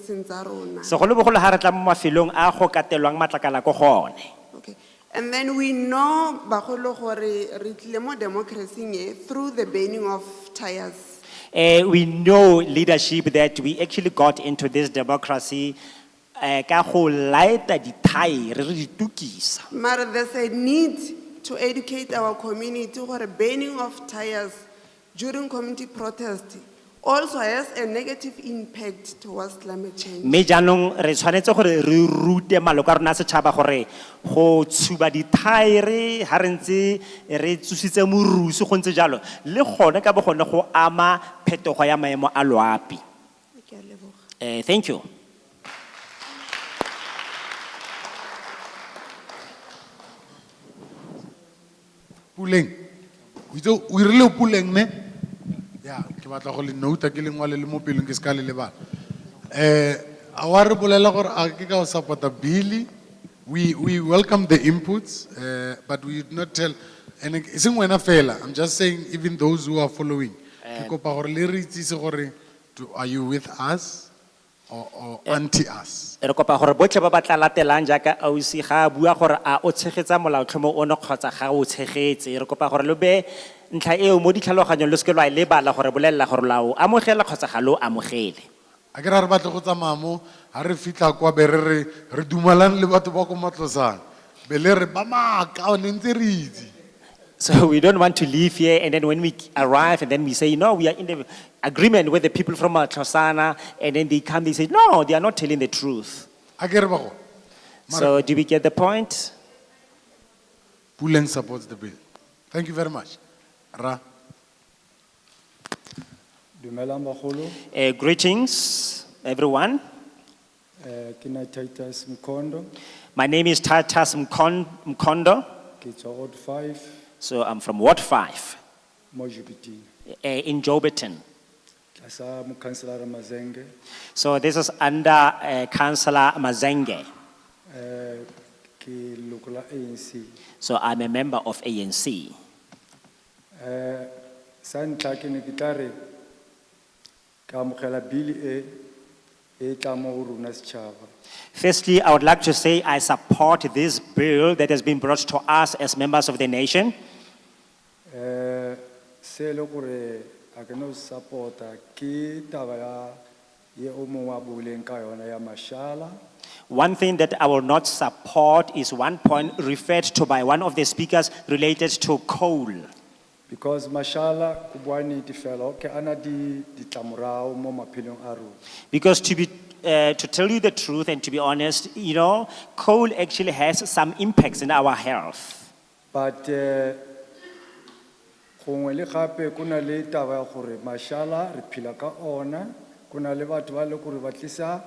diprovince tsa rona. segolobogolo ga re tla mo mafelong a go katelwang matlakala ko gone Okay. And then we know bagolo gore re tlile mo democracy-ing e through the burning of tires. Eh, we know leadership that we actually got into this democracy eh, ka go laeta dithaere re di tukisa Mara there's a need to educate our community gore burning of tires during community protest also has a negative impact towards climate change. mme jaanong re tshwanetse gore re rute maloko a rona a setšhaba gore go tshuba dithaere ga re ntse re tsositse morusi go ntse jalo le gone ka bo gone go ama phetogo ya maemo a loapi Ke a leboga. Eh, thank you Puleng. O itse o irile o Puleng ne? Ya, ke batla go le nouta ke le ngwale le mo pelong ke se ka le lebala. Eh, a wa re bolela gore a ke ka o support-a bill-i. We we welcome the inputs, uh, but we did not tell and e seng wena fela. I'm just saying even those who are following. Ke kopa gore le re itsise gore do- are you with us or or anti us? re kopa gore botlhe ba ba tla latelang jaaka ausi ga a bua gore a o tshegetsa molaotlhomo ono kgotsa ga o tshegetse re kopa gore lo be ntlha eo mo ditlhaloganyong lo seke lwa e lebala gore bolelela gore la o amogela kgotsa ga lo amogele A ke ra re batla go tsamaya mo ha re fitlha kwa be re re re dumalang le batho ba ko matlosana be le re ba maaka ne ntse re itse So we don't want to leave here and then when we arrive and then we say, no, we are in the agreement with the people from Matlosana and then they come, they say, no, they are not telling the truth. a ke re ba go So do we get the point? puleng supports the bill thank you very much ra Dumelang bagolo, Uh, greetings, everyone. eh ke na Titus Mkondo, My name is Tatas Mkon- Mkondo. ke tswa Ward 5 So I'm from Ward 5 mo Jobiting. uh, in Joburton. Tlasa Mokanselara Mazenge. So this is under uh, Councillor Mazenge. eh ke leloko la ANC. So I'm a member of ANC. Eh sa ntlha ke ne ke tla re ke amogela bili e e tla mo go rona setšhaba. Firstly, I would like to say I support this bill that has been brought to us as members of the nation. Eh se le gore a ke no support-a ke taba ya ye o mongwe a buileng ka yona ya mashala. One thing that I will not support is one point referred to by one of the speakers related to coal. Because mashallah, kubwani di fellow, ke ana di, di tamurao mo mapilong aru. Because to be, uh, to tell you the truth and to be honest, you know, coal actually has some impacts in our health. But eh, kongwe le kape kuna le taba ya gore mashallah, re phela ka ona, kuna le batho ba le gore ba tlisa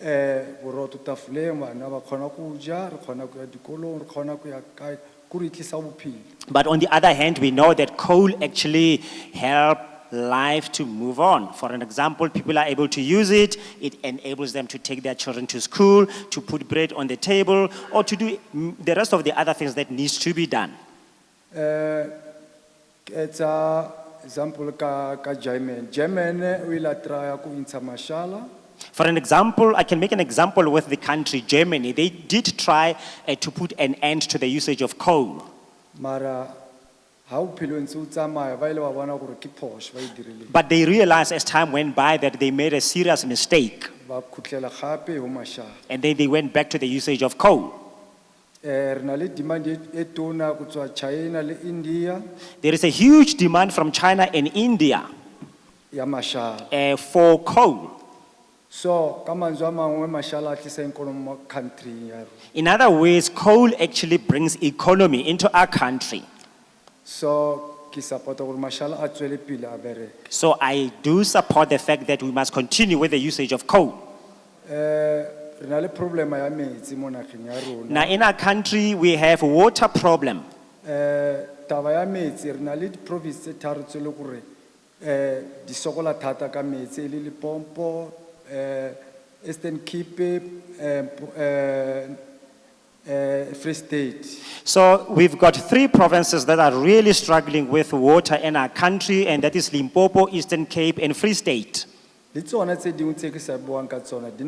eh, boroto tafoleng bana ba kgona go ja, re kgona go ya dikolong, re kgona go ya kae, kore e tlisa bophelo. But on the other hand, we know that coal actually help life to move on. For an example, people are able to use it. It enables them to take their children to school, to put bread on the table, or to do mm, the rest of the other things that needs to be done. Eh, ke tsa example ka, ka German, German eh, o ile a try go intsha mashallah, For an example, I can make an example with the country Germany. They did try uh, to put an end to the usage of coal. mara ha o phelo ntse o tsamaya ba ile ba bona gore ke phoso ba e dirileng But they realized as time went by that they made a serious mistake. ba khutlela gape ho mashala And then they went back to the usage of coal. eh re na le demand e- e tona go tswa China le India There is a huge demand from China and India ya mashala uh, for coal. so ka manzwe a mangwe mashala a tlisa ikonomi mo country ya rona In other words, coal actually brings economy into our country. so ke support-a gore mashala a tswele pele a bereke So I do support the fact that we must continue with the usage of coal. eh re na le problem ya metsi mo nageng ya rona Now, in our country, we have water problem. eh taba ya metsi re na le di-province tse tharo tse le gore eh di sokola thata ka metsi e le lepompo eh eastern cape eh Mpo- eh, eh free state So we've got three provinces that are really struggling with water in our country, and that is Limpopo, Eastern Cape, and Free State. le tsona tse dingwe tse ke sa buang ka tsona di